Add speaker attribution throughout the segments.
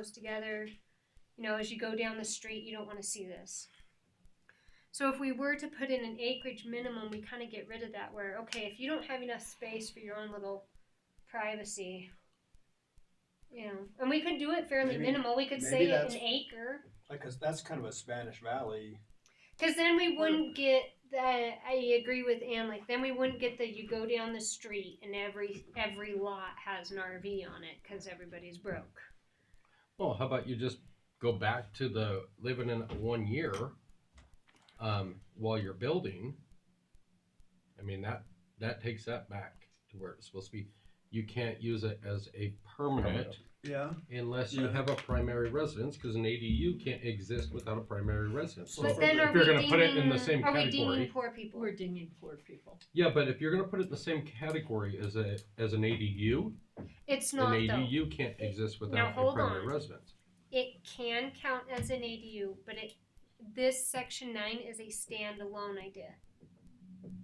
Speaker 1: close together. You know, as you go down the street, you don't want to see this. So if we were to put in an acreage minimum, we kind of get rid of that where, okay, if you don't have enough space for your own little privacy, you know, and we could do it fairly
Speaker 2: Maybe-
Speaker 1: minimal. We could
Speaker 2: maybe
Speaker 1: say
Speaker 2: that's-
Speaker 1: an acre.
Speaker 2: Like, 'cause that's kind of a Spanish Valley.
Speaker 1: Because then we wouldn't get that. I agree with Ann. Like then we wouldn't get the you go down the street and every every lot has an RV on it because everybody's broke.
Speaker 3: Well, how about you just go back to the living in one year um, while you're building? I mean that that takes that back to where it's supposed to be. You can't use it as a permanent
Speaker 4: Yeah.
Speaker 3: unless you
Speaker 4: Yeah.
Speaker 3: have a primary residence because an ADU can't exist without a primary residence.
Speaker 2: So
Speaker 1: But
Speaker 2: if-
Speaker 1: then
Speaker 3: if
Speaker 1: are
Speaker 3: you're
Speaker 1: we
Speaker 3: gonna
Speaker 1: deeming,
Speaker 3: put it in the same
Speaker 1: are we
Speaker 3: category-
Speaker 1: deeming poor people?
Speaker 5: We're dinging poor people.
Speaker 3: Yeah, but if you're going to put it in the same category as a as an ADU,
Speaker 1: It's
Speaker 3: an
Speaker 1: not though.
Speaker 3: ADU can't exist without a
Speaker 1: hold
Speaker 3: primary
Speaker 1: on.
Speaker 3: residence.
Speaker 1: It can count as an ADU, but it this section nine is a standalone idea.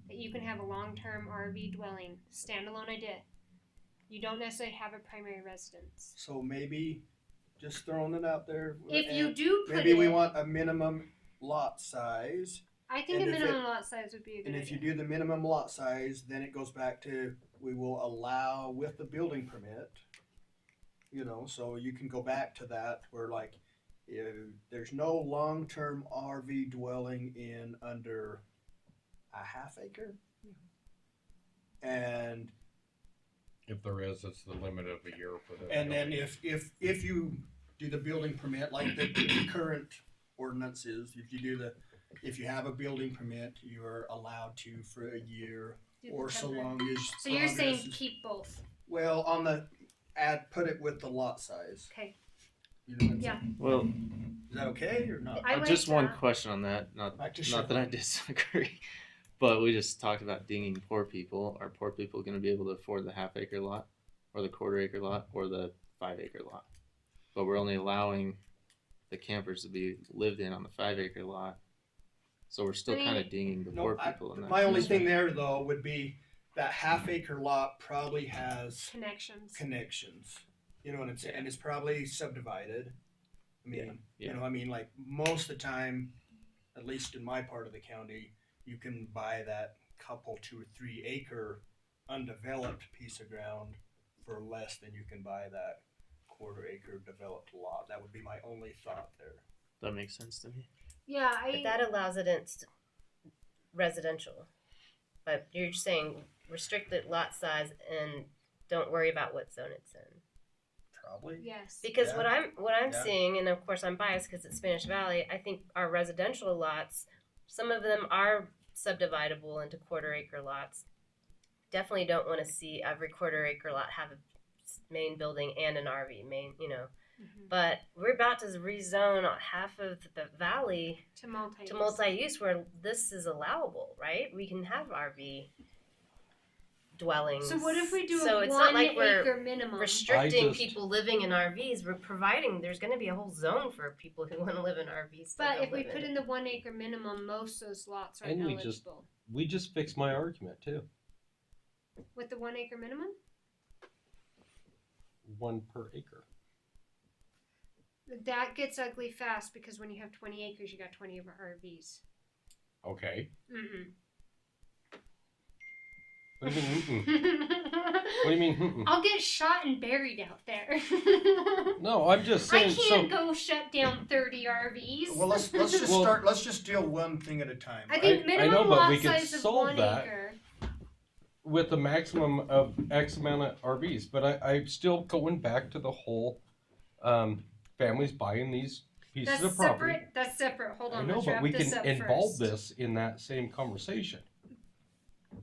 Speaker 1: That you can have a long term RV dwelling, standalone idea. You don't necessarily have a primary residence.
Speaker 2: So maybe, just throwing it out there.
Speaker 1: If you
Speaker 2: and
Speaker 1: do put
Speaker 2: maybe
Speaker 1: it,
Speaker 2: we want a minimum lot size,
Speaker 1: I think a
Speaker 2: and if it-
Speaker 1: minimum lot size would be a good
Speaker 2: and
Speaker 1: idea.
Speaker 2: if you do the minimum lot size, then it goes back to we will allow with the building permit. You know, so you can go back to that where like, you, there's no long-term RV dwelling in under a half acre. And
Speaker 3: If there is, it's the limit of a year for the.
Speaker 2: And then
Speaker 3: building.
Speaker 2: if, if, if you do the building permit, like the the current ordinance is, if you do the, if you have a building permit, you're allowed to for a year
Speaker 1: Do the
Speaker 2: or so
Speaker 1: temporary-
Speaker 2: long as.
Speaker 1: So you're
Speaker 2: long
Speaker 1: saying
Speaker 2: as-
Speaker 1: keep both?
Speaker 2: Well, on the, add, put it with the lot size.
Speaker 1: Okay.
Speaker 2: You know what I'm
Speaker 1: Yeah.
Speaker 2: saying?
Speaker 6: Well,
Speaker 2: Is that okay or not?
Speaker 1: I
Speaker 6: uh,
Speaker 1: like
Speaker 6: just one
Speaker 1: that.
Speaker 6: question on that. Not
Speaker 2: Back to
Speaker 6: not
Speaker 2: Cheryl.
Speaker 6: that I disagree, but we just talked about dinging poor people. Are poor people going to be able to afford the half acre lot, or the quarter acre lot, or the five acre lot? But we're only allowing the campers to be lived in on the five acre lot, so we're still
Speaker 1: I mean-
Speaker 6: kind of dinging the
Speaker 2: No,
Speaker 6: poor
Speaker 2: I-
Speaker 6: people. in that
Speaker 2: My only
Speaker 6: respect.
Speaker 2: thing there though would be that half acre lot probably has
Speaker 1: Connections.
Speaker 2: connections. You know what I'm saying? And it's probably subdivided. I mean,
Speaker 6: yeah.
Speaker 2: you know, I mean, like most of the time, at least in my part of the county, you can buy that couple two or three acre undeveloped piece of ground for less than you can buy that quarter acre developed lot. That would be my only thought there.
Speaker 6: that makes sense to me.
Speaker 1: yeah,
Speaker 7: But
Speaker 1: I.
Speaker 7: that allows it in s- residential. But you're saying restricted lot size and don't worry about what zone it's in.
Speaker 2: Probably.
Speaker 1: Yes.
Speaker 7: Because
Speaker 2: Yeah.
Speaker 7: what I'm what I'm
Speaker 2: Yeah.
Speaker 7: seeing, and of course I'm biased because it's Spanish Valley. I think our residential lots, some of them are subdividable into quarter acre lots. Definitely don't want to see every quarter acre lot have a s- main building and an RV main, you know.
Speaker 1: Mhm.
Speaker 7: But we're about to rezone half of the valley
Speaker 1: To multi.
Speaker 7: to multi-use where this is allowable, right? We can have RV dwellings.
Speaker 1: So what if we do
Speaker 7: So
Speaker 1: a
Speaker 7: it's
Speaker 1: one
Speaker 7: not like we're
Speaker 1: acre minimum?
Speaker 7: restricting
Speaker 3: I just-
Speaker 7: people living in RVs? We're providing there's going to be a whole zone for people who want to live in RVs. that
Speaker 1: But
Speaker 7: don't
Speaker 1: if we
Speaker 7: live
Speaker 1: put
Speaker 7: in
Speaker 1: in the one acre minimum, most of those lots are
Speaker 3: And we
Speaker 1: eligible.
Speaker 3: just- we just fixed my argument too.
Speaker 1: With the one acre minimum?
Speaker 3: One per acre.
Speaker 1: That gets ugly fast because when you have twenty acres, you got twenty of our RVs.
Speaker 3: Okay.
Speaker 1: Mm-mm.
Speaker 3: What do you mean? mm-mm? What do you mean? mm-mm?
Speaker 1: I'll get shot and buried out there.
Speaker 3: No, I'm just
Speaker 1: I
Speaker 3: saying.
Speaker 1: can't
Speaker 3: So,
Speaker 1: go shut down thirty RVs.
Speaker 2: Well, let's let's just
Speaker 3: Well-
Speaker 2: start. Let's just deal one thing at a time.
Speaker 1: I
Speaker 2: right?
Speaker 1: think
Speaker 3: I- I
Speaker 1: minimum
Speaker 3: know, but
Speaker 1: lot
Speaker 3: we could
Speaker 1: size of
Speaker 3: solve
Speaker 1: one
Speaker 3: that.
Speaker 1: acre.
Speaker 3: with a maximum of X amount of RVs, but I, I'm still going back to the whole um, families buying these pieces
Speaker 1: That's
Speaker 3: of property.
Speaker 1: separate. That's separate. Hold on.
Speaker 3: I know,
Speaker 1: let's
Speaker 3: but
Speaker 1: wrap
Speaker 3: we
Speaker 1: this
Speaker 3: can
Speaker 1: up
Speaker 3: involve
Speaker 1: first.
Speaker 3: this in that same conversation.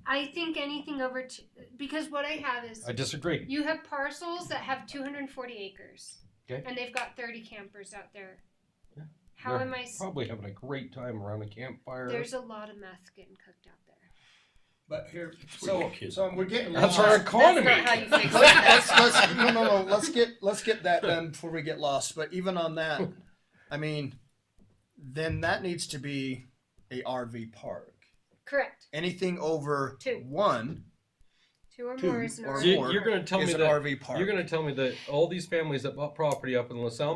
Speaker 1: I think anything over t- because what I have is
Speaker 3: I disagree.
Speaker 1: you have parcels that have 240 acres.
Speaker 3: Okay.
Speaker 1: And they've got 30 campers out there.
Speaker 3: Yeah.
Speaker 1: How
Speaker 3: They're
Speaker 1: am I? s-
Speaker 3: Probably having a great time around a campfire.
Speaker 1: There's a lot of meth getting cooked out there.
Speaker 2: But here, so so we're getting
Speaker 3: That's
Speaker 2: lost.
Speaker 3: our economy.
Speaker 7: That's not how you fix
Speaker 2: Let- let's,
Speaker 7: that.
Speaker 2: let's, no, no, no. Let's get let's get that done before we get lost. But even on that, I mean, then that needs to be a RV park.
Speaker 1: Correct.
Speaker 2: Anything over
Speaker 1: Two.
Speaker 2: one
Speaker 1: Two or
Speaker 2: Two
Speaker 1: more is an
Speaker 2: or
Speaker 1: RV
Speaker 3: So you-
Speaker 2: more
Speaker 3: you're going to tell
Speaker 2: is
Speaker 3: me
Speaker 2: an
Speaker 3: that
Speaker 2: RV park.
Speaker 3: you're going to tell me that all these families that bought property up in LaSalle